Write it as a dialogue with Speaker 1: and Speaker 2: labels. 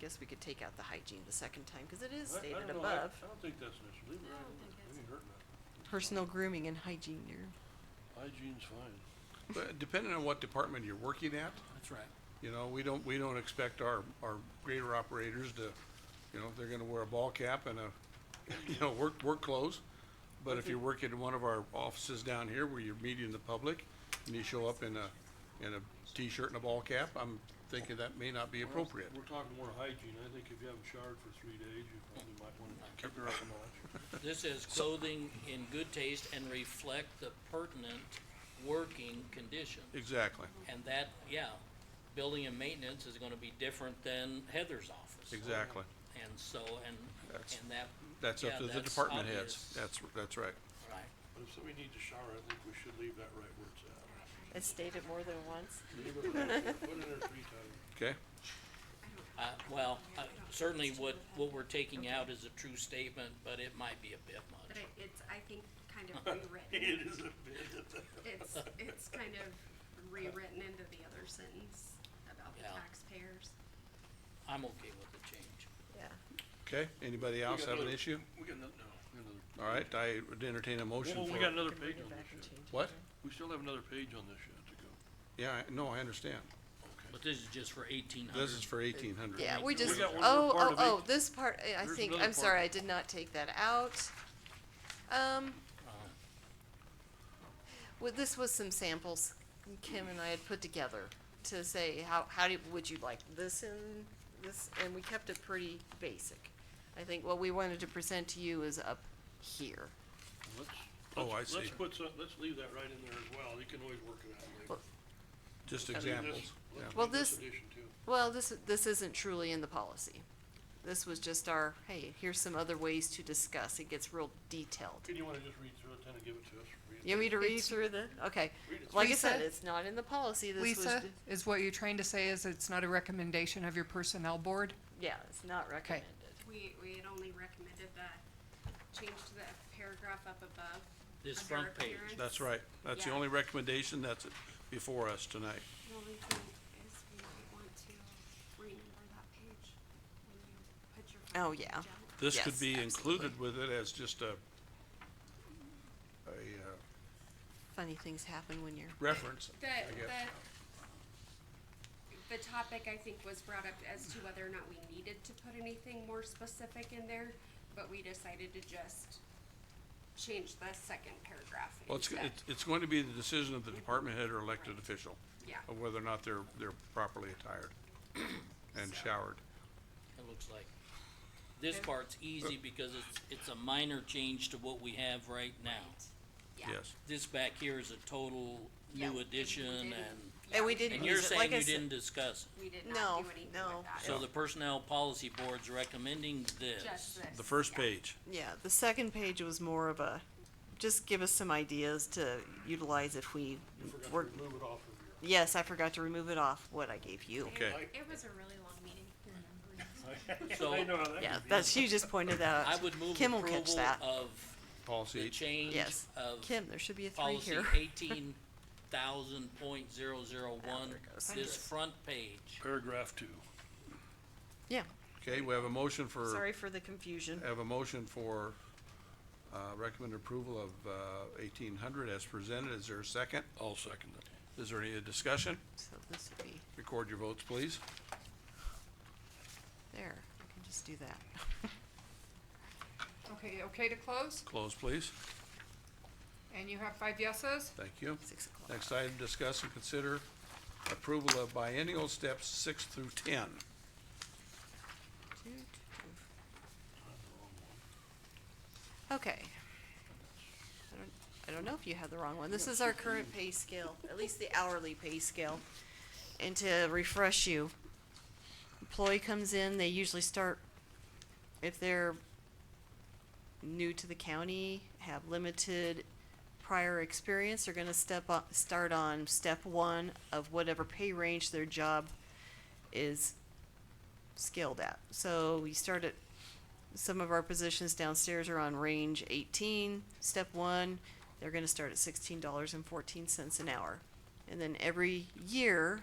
Speaker 1: guess we could take out the hygiene the second time, cause it is
Speaker 2: I- I
Speaker 1: stated
Speaker 2: don't know, I-
Speaker 1: above.
Speaker 2: I don't think that's an issue, leave it
Speaker 3: I
Speaker 2: right
Speaker 3: don't
Speaker 2: in
Speaker 3: think
Speaker 2: there,
Speaker 3: that's-
Speaker 2: it ain't hurting nothing.
Speaker 1: Personal grooming and hygiene, you're,
Speaker 2: Hygiene's fine.
Speaker 4: But depending on what department you're working at,
Speaker 5: That's right.
Speaker 4: you know, we don't, we don't expect our, our grader operators to, you know, they're gonna wear a ball cap and a, you know, work, work clothes. But if you're working in one of our offices down here where you're meeting the public and you show up in a, in a t-shirt and a ball cap, I'm thinking that may not be appropriate.
Speaker 2: We're talking more hygiene, I think if you haven't showered for three days, you probably might wanna keep her up a notch.
Speaker 5: This is clothing in good taste and reflect the pertinent working condition.
Speaker 4: Exactly,
Speaker 5: And that, yeah, building and maintenance is gonna be different than Heather's office.
Speaker 4: exactly.
Speaker 5: And so, and,
Speaker 4: That's-
Speaker 5: and that,
Speaker 4: That's
Speaker 5: Yeah,
Speaker 4: up to the
Speaker 5: that's
Speaker 4: department heads.
Speaker 5: obvious.
Speaker 4: That's, that's right.
Speaker 5: right,
Speaker 2: But if somebody needs to shower, I think we should leave that right where it's at.
Speaker 1: it's stated more than once.
Speaker 2: Leave it right there, put it in there three times.
Speaker 4: Okay?
Speaker 5: uh, well, uh, certainly what, what we're taking out is a true statement, but it might be a bit
Speaker 3: But
Speaker 5: much.
Speaker 3: it, it's, I think, kind of
Speaker 2: It
Speaker 3: rewritten.
Speaker 2: is a bit.
Speaker 3: It's, it's kind of rewritten into the other sentence about the
Speaker 5: Yeah.
Speaker 3: taxpayers.
Speaker 5: I'm okay with the change.
Speaker 1: Yeah.
Speaker 4: Okay, anybody else have an
Speaker 2: another-
Speaker 4: issue?
Speaker 2: We got another, no, we got another.
Speaker 4: All right, I would entertain a motion
Speaker 2: Well,
Speaker 4: for.
Speaker 2: we got another
Speaker 1: Can bring
Speaker 2: page
Speaker 1: it
Speaker 2: on
Speaker 1: back
Speaker 2: this
Speaker 1: and
Speaker 2: yet.
Speaker 1: change it
Speaker 4: What?
Speaker 1: later.
Speaker 2: We still have another page on this yet to go.
Speaker 4: Yeah, I- no, I understand.
Speaker 5: But this is just for eighteen hundred.
Speaker 4: This is for eighteen hundred.
Speaker 1: Yeah, we
Speaker 5: We
Speaker 1: just,
Speaker 2: got one more
Speaker 1: oh,
Speaker 2: part
Speaker 1: oh,
Speaker 2: of
Speaker 1: oh,
Speaker 2: eight.
Speaker 1: this part, I- I
Speaker 2: Here's
Speaker 1: think,
Speaker 2: another
Speaker 1: I'm
Speaker 2: part.
Speaker 1: sorry, I did not take that out. Um, well, this was some samples Kim and I had put together to say, how, how do, would you like this and this, and we kept it pretty basic. I think what we wanted to present to you is up here.
Speaker 2: Let's,
Speaker 4: Oh,
Speaker 2: let's,
Speaker 4: I
Speaker 2: let's
Speaker 4: see.
Speaker 2: put some, let's leave that right in there as well, you can always work it out later.
Speaker 1: Well,
Speaker 4: Just
Speaker 2: Let's do this-
Speaker 4: examples.
Speaker 2: let's
Speaker 4: yeah.
Speaker 2: do
Speaker 1: Well, this-
Speaker 2: Addition too.
Speaker 1: Well, this, this isn't truly in the policy. This was just our, hey, here's some other ways to discuss, it gets real detailed.
Speaker 2: Can you wanna just read through it, then and give it to us? Read it.
Speaker 1: You want me to read through the, okay,
Speaker 2: Read it.
Speaker 1: like I said,
Speaker 6: Lisa?
Speaker 1: it's not in the policy, this was,
Speaker 6: Lisa,
Speaker 1: d-
Speaker 6: is what you're trying to say is it's not a recommendation of your personnel board?
Speaker 1: yeah, it's not recommended.
Speaker 3: We, we had only recommended that change to the paragraph up above.
Speaker 5: This
Speaker 3: under
Speaker 5: front page.
Speaker 3: appearance.
Speaker 4: That's right. That's the
Speaker 3: Yeah.
Speaker 4: only recommendation that's before us tonight.
Speaker 3: The only thing is we might want to renumber that page when you put your. front
Speaker 1: Oh,
Speaker 3: page
Speaker 1: yeah.
Speaker 3: out.
Speaker 4: This
Speaker 1: Yes,
Speaker 4: could be
Speaker 1: absolutely.
Speaker 4: included with it as just a, a, uh,
Speaker 1: Funny things happen when you're,
Speaker 4: reference,
Speaker 3: The,
Speaker 4: I guess.
Speaker 3: the, the topic I think was brought up as to whether or not we needed to put anything more specific in there, but we decided to just change the second paragraph.
Speaker 4: Well, it's,
Speaker 3: instead.
Speaker 4: it's, it's going to be the decision of the department head or elected official.
Speaker 3: Yeah.
Speaker 4: Of whether or not they're, they're properly attired and
Speaker 3: So-
Speaker 4: showered.
Speaker 5: It looks like. This part's easy because it's, it's a minor change to what we have right now.
Speaker 3: Yeah.
Speaker 4: Yes.
Speaker 5: This back here is a total
Speaker 3: Yeah,
Speaker 5: new
Speaker 3: we
Speaker 5: addition
Speaker 3: didn't-
Speaker 5: and,
Speaker 1: and we
Speaker 3: Yeah,
Speaker 1: didn't
Speaker 5: and you're
Speaker 1: use it,
Speaker 5: saying
Speaker 1: like I
Speaker 5: you
Speaker 1: said,
Speaker 5: didn't discuss. it.
Speaker 3: We did
Speaker 1: No,
Speaker 3: not do anything
Speaker 1: no.
Speaker 3: with that.
Speaker 5: So the Personnel Policy Board's recommending
Speaker 3: Just
Speaker 5: this.
Speaker 3: this.
Speaker 4: The first
Speaker 3: yeah.
Speaker 4: page.
Speaker 1: yeah, the second page was more of a, just give us some ideas to utilize if we
Speaker 2: You forgot
Speaker 1: were,
Speaker 2: to remove it off of your.
Speaker 1: yes, I forgot to remove it off what I gave you.
Speaker 4: Okay.
Speaker 3: It was a really long meeting.
Speaker 5: So
Speaker 2: I know how that
Speaker 1: Yeah,
Speaker 2: could be.
Speaker 1: that's, you just pointed that
Speaker 5: I
Speaker 1: out.
Speaker 5: would move
Speaker 1: Kim will catch
Speaker 5: approval
Speaker 1: that.
Speaker 5: of
Speaker 4: Policy
Speaker 5: the
Speaker 4: H.
Speaker 5: change
Speaker 1: Yes,
Speaker 5: of
Speaker 1: Kim, there should be a three
Speaker 5: policy
Speaker 1: here.
Speaker 5: eighteen thousand point zero zero
Speaker 1: Ah,
Speaker 5: one,
Speaker 1: there it goes.
Speaker 5: this front page.
Speaker 2: Paragraph two.
Speaker 1: Yeah,
Speaker 4: Okay, we have a motion for.
Speaker 1: sorry for the confusion.
Speaker 4: I have a motion for, uh, recommend approval of, uh, eighteen hundred as presented. Is there a second?
Speaker 2: I'll second that.
Speaker 4: Is there any discussion?
Speaker 1: So this would be,
Speaker 4: Record your votes, please.
Speaker 1: there, I can just do that.
Speaker 6: Okay, okay to close?
Speaker 4: Close, please.
Speaker 6: And you have five yeses?
Speaker 4: Thank you.
Speaker 1: Six o'clock.
Speaker 4: Next item, discuss and consider approval of biennial steps six through ten.
Speaker 1: Toot, toot. Okay. I don't, I don't know if you had the wrong one. This is our current pay scale, at least the hourly pay scale. And to refresh you, employee comes in, they usually start, if they're new to the county, have limited prior experience, they're gonna step up, start on step one of whatever pay range their job is scaled at. So we start at, some of our positions downstairs are on range eighteen, step one, they're gonna start at sixteen dollars and fourteen cents an hour. And then every year,